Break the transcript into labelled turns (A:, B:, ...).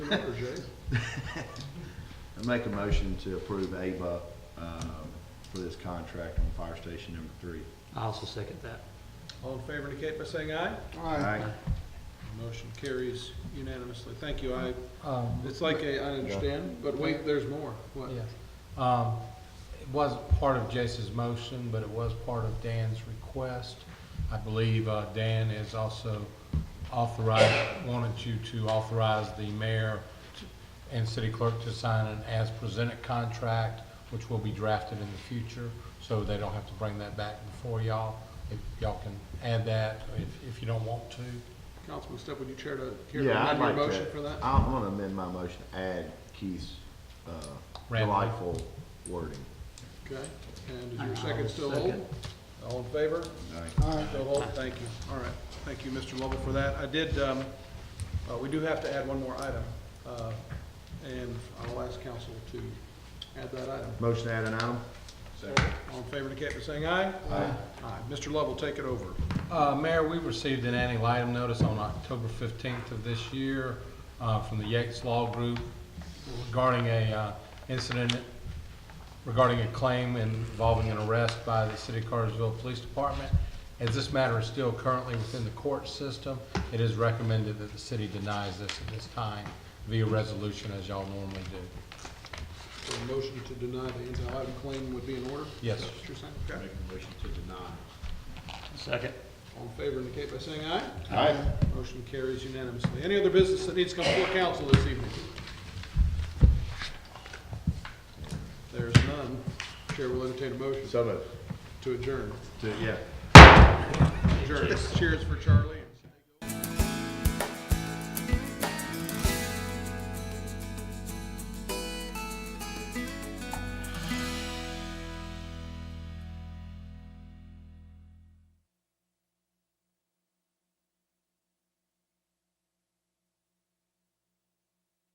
A: I make a motion to approve Ava, um, for this contract on fire station number three.
B: I also second that.
C: All in favor indicate by saying aye. Motion carries unanimously. Thank you. I,
D: Um,
C: it's like a, I understand, but wait, there's more. What?
D: yes. Um, it wasn't part of Jace's motion, but it was part of Dan's request. I believe, uh, Dan is also authorized, wanted you to authorize the mayor to- and city clerk to sign an as-presented contract, which will be drafted in the future, so they don't have to bring that back before y'all. If y'all can add that, if, if you don't want to.
C: Councilman Step, would you chair to, care to
A: Yeah, I'd
C: amend your
A: like
C: motion for
A: to,
C: that?
A: I want to amend my motion to add Keith's, uh,
D: Random.
A: delightful wording.
C: Okay. And is
B: I-
C: your
B: I'll
C: second still
B: second.
C: hold? All in favor?
A: Aye.
C: Still hold? Thank you. All right. Thank you, Mr. Lovell, for that. I did, um, uh, we do have to add one more item. uh, And I'll ask council to add that item.
A: Motion to add an item?
C: All in favor indicate by saying aye.
A: Aye.
C: Aye. Mr. Lovell, take it over.
D: Uh, Mayor, we received an ante litem notice on October 15th of this year uh, from the Yates Law Group regarding a uh, incident, regarding a claim involving an arrest by the City of Cartersville Police Department. As this matter is still currently within the court system, it is recommended that the city denies this at this time via resolution as y'all normally do.
C: So a motion to deny the anti-item claim would be in order?
D: Yes.
C: Is that what you're saying? Okay.
A: motion to deny.
B: Second.
C: All in favor indicate by saying aye.
A: Aye.
C: Motion carries unanimously. Any other business that needs to come before council this evening? There's none. Chair will entertain a motion
A: So moved.
C: to adjourn.
A: To- Yeah.
C: Adjourn. Cheers for Charlie.